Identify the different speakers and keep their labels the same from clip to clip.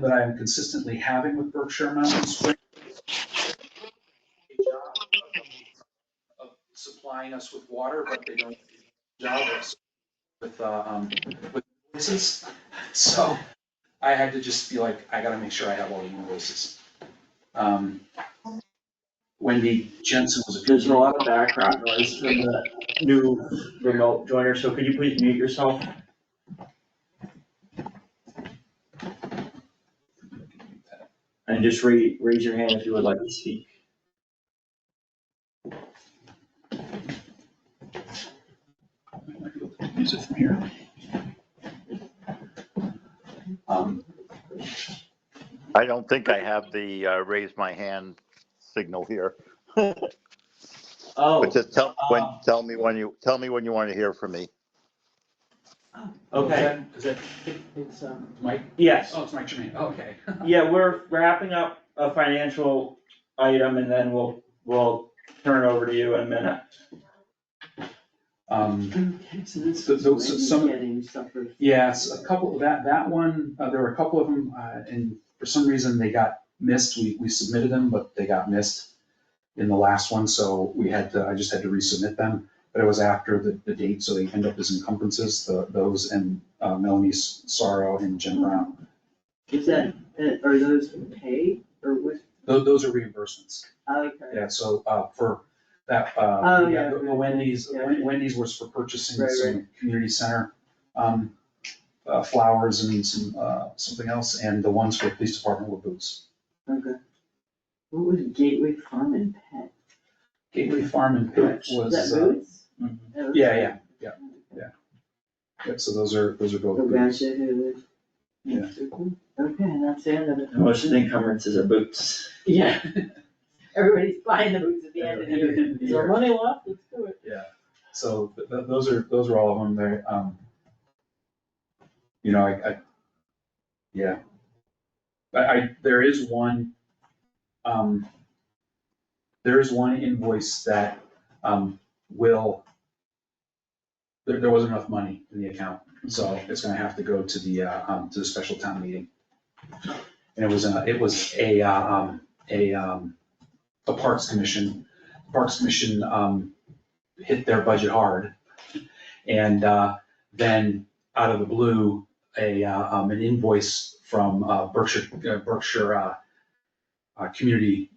Speaker 1: that I am consistently having with Berkshire Mountain Spring. a job Of supplying us with water, but they don't do a job of s- with, uh, um, with voices. So I had to just be like, I gotta make sure I have all the invoices. Um, Wendy Jensen was a.
Speaker 2: There's a lot of background noise from the new remote joiner, so could you please mute yourself? And just ra- raise your hand if you would like to speak.
Speaker 1: Use it from here. Um,
Speaker 3: I don't think I have the uh, raise my hand signal here.
Speaker 2: Oh,
Speaker 3: But just tell, when,
Speaker 2: uh,
Speaker 3: tell me when you, tell me when you want to hear from me.
Speaker 2: okay,
Speaker 1: Is that
Speaker 4: It's, um,
Speaker 1: Mike?
Speaker 2: yes,
Speaker 1: Oh, it's Mike Jermaine, Oh, okay.
Speaker 2: yeah, we're wrapping up a financial item and then we'll, we'll turn it over to you in a minute.
Speaker 1: Um,
Speaker 4: okay, so this
Speaker 1: So-
Speaker 4: is
Speaker 1: so- so some-
Speaker 4: Wendy getting suffered.
Speaker 1: Yes, a couple, that, that one, uh, there were a couple of them, uh, and for some reason they got missed. We, we submitted them, but they got missed in the last one, so we had to, I just had to resubmit them. But it was after the, the date, so they end up as encumbrances, the, those and uh, Melanie S- Sorrow and Jen Brown.
Speaker 4: Is that, uh, are those paid or what?
Speaker 1: Those, those are reimbursements.
Speaker 4: Okay,
Speaker 1: Yeah, so, uh, for that, uh,
Speaker 4: Oh,
Speaker 1: yeah,
Speaker 4: yeah.
Speaker 1: the the Wendy's,
Speaker 4: Yeah.
Speaker 1: Wen- Wendy's was for purchasing
Speaker 4: Right,
Speaker 1: some community center, um, uh, flowers and some, uh, something else, and the ones for the police department were boots.
Speaker 4: okay. What was Gateway Farm and Pet?
Speaker 1: Gateway Farm and Pet
Speaker 4: Is
Speaker 1: was,
Speaker 4: that
Speaker 1: uh,
Speaker 4: Boots? Oh,
Speaker 1: yeah,
Speaker 4: okay.
Speaker 1: yeah, yeah, yeah, so those are, those are both
Speaker 4: Go back
Speaker 1: boots.
Speaker 4: to the.
Speaker 1: Yeah.
Speaker 4: Okay, and that's the end of it.
Speaker 2: Most of the encumbrances are boots.
Speaker 4: Yeah. Everybody's buying the boots at the end of the year.
Speaker 1: End of the
Speaker 4: Is there
Speaker 1: year.
Speaker 4: money left? Let's do it.
Speaker 1: So th- th- those are, those are all of them there. Um, you know, I, I, yeah. I, I, there is one, um, there is one invoice that, um, will, there, there wasn't enough money in the account, so it's gonna have to go to the, uh, um, to the special town meeting. And it was, uh, it was a, uh, um, a, um, a Parks Commission, Parks Commission, um, hit their budget hard. And uh, then out of the blue, a, uh, um, an invoice from uh, Berkshire, uh, Berkshire uh, uh, Community,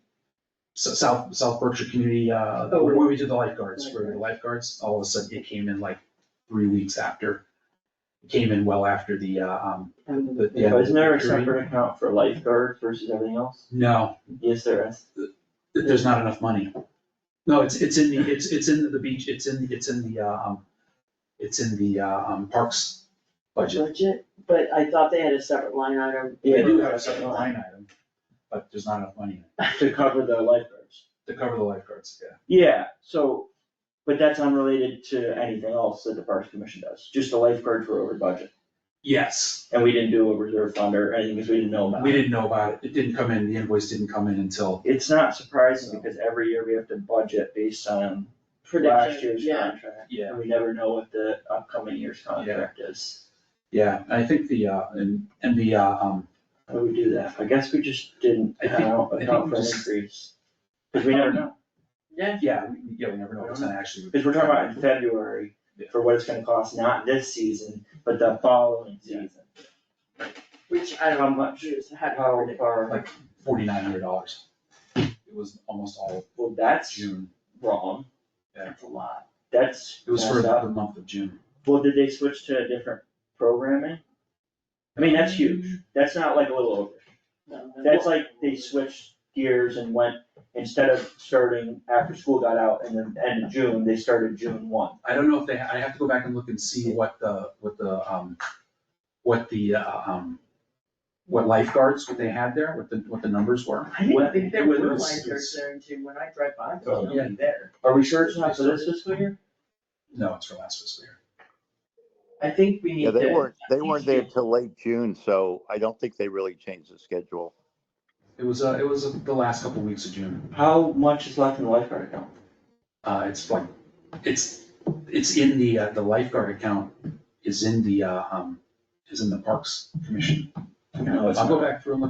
Speaker 1: S- South, South Berkshire Community, uh,
Speaker 4: Oh,
Speaker 1: where we did the lifeguards, where the lifeguards, all of a sudden it came in like three weeks after. It Came in well after the, uh, um,
Speaker 4: End of
Speaker 1: the.
Speaker 4: it.
Speaker 1: the end of
Speaker 2: Isn't there a
Speaker 1: the
Speaker 2: separate account for lifeguards versus everything else?
Speaker 1: No,
Speaker 2: Yes, there is.
Speaker 1: there's not enough money. No, it's, it's in the, it's, it's in the beach, it's in, it's in the, uh, um, it's in the, uh, um, parks budget.
Speaker 4: Budget, but I thought they had a separate line item.
Speaker 1: They do have a separate line item, but there's not enough money in it
Speaker 2: To cover the lifeguards.
Speaker 1: to cover the lifeguards, yeah.
Speaker 2: Yeah, so, but that's unrelated to anything else that the Parks Commission does, just the lifeguards were over budget.
Speaker 1: Yes,
Speaker 2: And we didn't do a reserve fund or anything because we didn't know about
Speaker 1: we
Speaker 2: it.
Speaker 1: didn't know about it, it didn't come in, the invoice didn't come in until,
Speaker 2: It's not surprising because every year we have to budget based on last
Speaker 4: Prediction,
Speaker 2: year's
Speaker 4: yeah.
Speaker 2: contract.
Speaker 1: yeah,
Speaker 2: And we never know what the upcoming year's contract is.
Speaker 1: yeah, I think the, uh, and, and the, uh, um,
Speaker 2: How do we do that? I guess we just didn't
Speaker 1: I think-
Speaker 2: account
Speaker 1: I think
Speaker 2: account
Speaker 1: we
Speaker 2: for an
Speaker 1: just-
Speaker 2: increase. Because we never know.
Speaker 4: Yeah.
Speaker 1: yeah, we- yeah, we never know what's gonna actually.
Speaker 2: Because we're talking about in February for what it's gonna cost, not this season, but the following season.
Speaker 4: Which I
Speaker 2: How
Speaker 4: don't know,
Speaker 2: much?
Speaker 4: choose, how to
Speaker 2: How
Speaker 4: predict.
Speaker 2: far,
Speaker 1: Forty-nine hundred dollars. It was almost all
Speaker 2: well, that's
Speaker 1: June,
Speaker 2: wrong.
Speaker 1: Yeah.
Speaker 2: That's a lot. That's
Speaker 1: it was for
Speaker 2: messed
Speaker 1: the
Speaker 2: up.
Speaker 1: month of June.
Speaker 2: Well, did they switch to a different programming? I mean, that's huge. That's not like a little over.
Speaker 4: No, no.
Speaker 2: That's like they switched gears and went, instead of starting after school got out and then end of June, they started June one.
Speaker 1: I don't know if they, I have to go back and look and see what the, what the, um, what the, uh, um, what lifeguards, what they had there, what the, what the numbers were.
Speaker 4: I didn't
Speaker 2: What-
Speaker 4: think there were
Speaker 1: what is-
Speaker 4: lifeguards there in June, when I drive by, there's
Speaker 1: Oh, yeah.
Speaker 4: nobody there.
Speaker 2: Are we sure it's not for this fiscal year?
Speaker 1: No, it's for last fiscal year.
Speaker 4: I think we need
Speaker 3: Yeah,
Speaker 4: to.
Speaker 3: they weren't, they
Speaker 4: think
Speaker 3: weren't there till late June, so I don't think they really changed the schedule.
Speaker 1: It was, uh, it was uh, the last couple weeks of June.
Speaker 2: How much is left in the lifeguard account?
Speaker 1: Uh, it's like, it's, it's in the, uh, the lifeguard account is in the, uh, um, is in the Parks Commission You know, I'll go back through and look